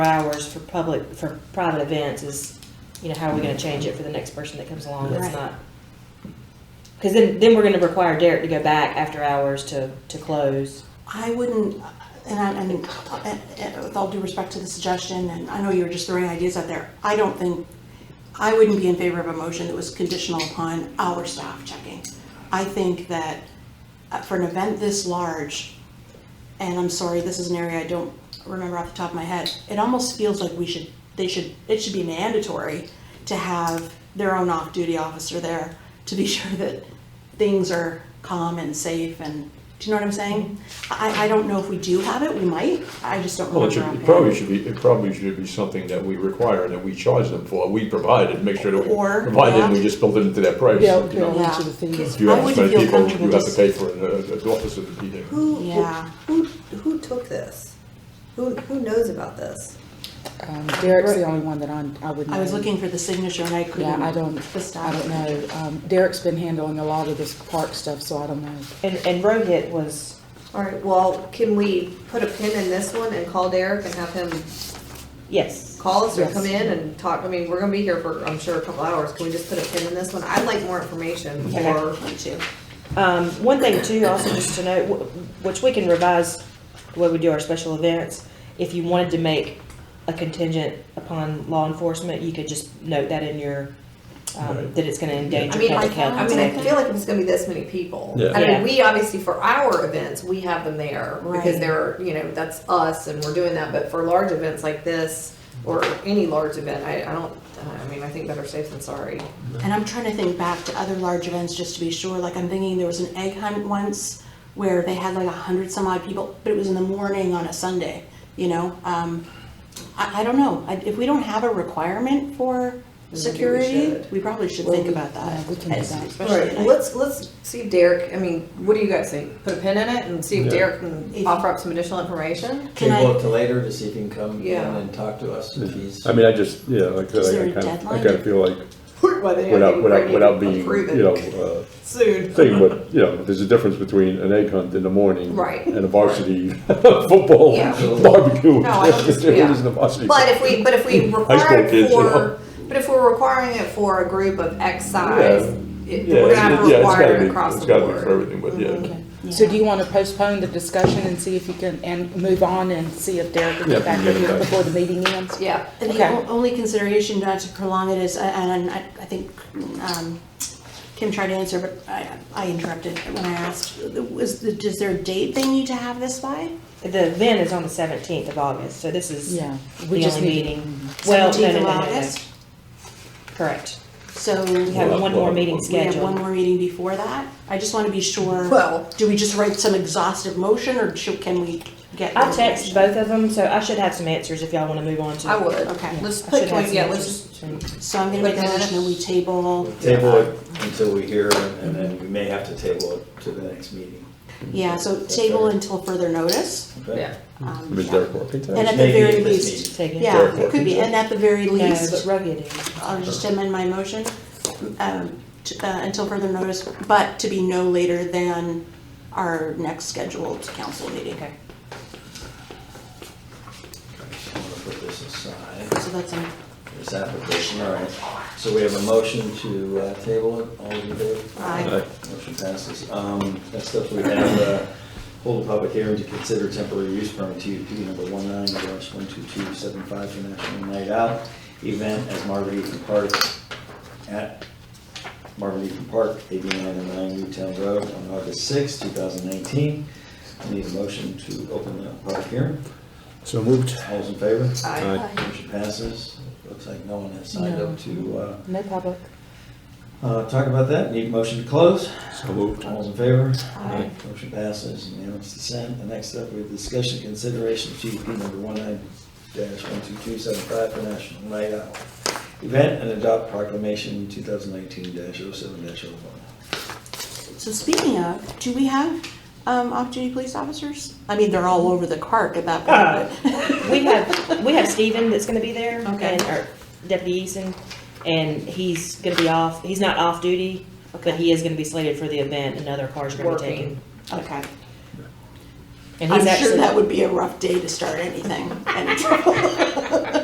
hours for public, for private events is, you know, how are we gonna change it for the next person that comes along that's Right. not? Cause then, then we're gonna require Derek to go back after hours to, to close. I wouldn't, and I, and uh, uh, with all due respect to the suggestion, and I know you were just throwing ideas out there, I don't think, I wouldn't be in favor of a motion that was conditional upon our staff checking. I think that uh, for an event this large, and I'm sorry, this is an area I don't remember off the top of my head, it almost feels like we should, they should, it should be mandatory to have their own off-duty officer there to be sure that things are calm and safe and, do you know what I'm saying? I, I don't know if we do have it, we might, I just don't Well, remember. it should, offhand. it probably should be, it probably should be something that we require, that we charge them for, we provide it, make sure that we Or- provide it, and we just build it into that price. Yeah, you okay, know. one of the things. If you I have wouldn't so many feel people, comfortable you have to just- pay for an, uh, an officer to be there. Who, who- Yeah. Who, who took this? Who, who knows about this? Um, Derek's the only one that I'm, I would know. I was looking for the signature and I Yeah, couldn't. I don't, The I staff. don't know. Um, Derek's been handling a lot of this park stuff, so I don't know. And, and Rohit was, All right, well, can we put a pin in this one and call Derek and have him yes, call us or Yes. come in and talk? I mean, we're gonna be here for, I'm sure, a couple hours. Can we just put a pin in this one? I'd like more information Okay. for, Me too. um, one thing too, also just to note, wh- which we can revise the way we do our special events. If you wanted to make a contingent upon law enforcement, you could just note that in your, um, Right. that it's gonna I endanger mean, I, public health. I mean, I feel like if it's gonna be this many people. Yeah. I Yeah. mean, we obviously, for our events, we have them there because Right. they're, you know, that's us and we're doing that. But for large events like this or any large event, I, I don't, I mean, I think better safe than sorry. And I'm trying to think back to other large events just to be sure. Like I'm thinking there was an egg hunt once where they had like a hundred some odd people, but it was in the morning on a Sunday. You know, um, I, I don't know. I, if we don't have a requirement for we security, we, should. probably should Well, think we- about that. yeah, we can do that. All Especially right, well, let's, let's see if Derek, I mean, what do you guys think? Put a pin in it and see if Yeah. Derek can If- offer up some additional information? Can I- Table it to later to see if he can come in Yeah. and talk to us if he's. I mean, I just, yeah, like, I Is there a said, I kind of, I deadline? kind of feel like Whether they without, can without, bring without it being, proven you know, uh, Soon. thing, but, you know, there's a difference between an egg hunt in the morning. Right. And a varsity football Yeah. barbecue. No, I don't dis- There yeah. isn't a varsity. But if we, but if we school require it kids, you for, know. but if we're requiring it for a group of X size, it- Yeah, we're gonna have it- to yeah, it's require gotta it be, across it's the gotta be for board. everything, but yeah. So do you want to postpone the discussion and see if you can, and move on and see if Derek can Yeah, get back we with can you get it back. before the meeting ends? Yeah, And the Okay. o- only consideration not to prolong it is, and I, I think um, Kim tried to answer, but I, I interrupted when I asked, was, the- is there a date they need to have this by? The event is on the seventeenth of August, so this is Yeah, we the just only need- meeting. Well, no, no, 17th no, Mm-hmm. of no, no, August? correct. So We have one more meeting we have one scheduled. more meeting before that? I just want to be sure. Well- Do we just write some exhaustive motion or should, can we get? I text information? both of them, so I should have some answers if y'all wanna move on to. I would. Okay. Let's I put, should have twenty- some yeah, let's answers just, soon. So I'm going to Wait make a a minute. motion that we table. Table it until we hear, and then we may have to table it to the next meeting. Yeah, so table until further notice. okay? yeah. um, Is Derek working And today? at the Maybe very at this least, meeting. Take it. Yeah, it could be, and at the very No, least, but rugged is. I'll just amend my motion, um, to- uh, until further notice, but to be no later than our next scheduled council meeting. Okay. I'm gonna put this aside. So that's, um, This application, all right. So we have a motion to uh, table it, all in favor? Aye. Aye. Motion passes. Um, Next up, we have uh, hold a public hearing to consider temporary use permit TUP number 19-12275 for National Night Out event as Marvin Eaton Park at Marvin Eaton Park, 8909 Newtown Road on August 6, 2019. I Need a motion to open the public hearing. So moved. All those in favor? I- Motion passes. Looks like no one has signed No. up to uh, No public? uh, talk about that. Need a motion to close. So moved. All's in favor? Aye. Motion passes. Unanimous consent. The next up, we have discussion consideration of GDP number one nine dash one two two seven five for National Night Out event and adopt proclamation two thousand nineteen dash oh seven dash oh one. so speaking of, do we have, um, off-duty police officers? I mean, they're all over the park at that point, We have, we have Steven that's gonna be there. Okay. And our deputy Eason, and he's gonna be off, he's not off duty, but he is gonna be slated for the event and other cars are gonna be Working. taken. but, okay. And Uh, he's I'm sure actually- that would be a rough day to start anything, any trouble.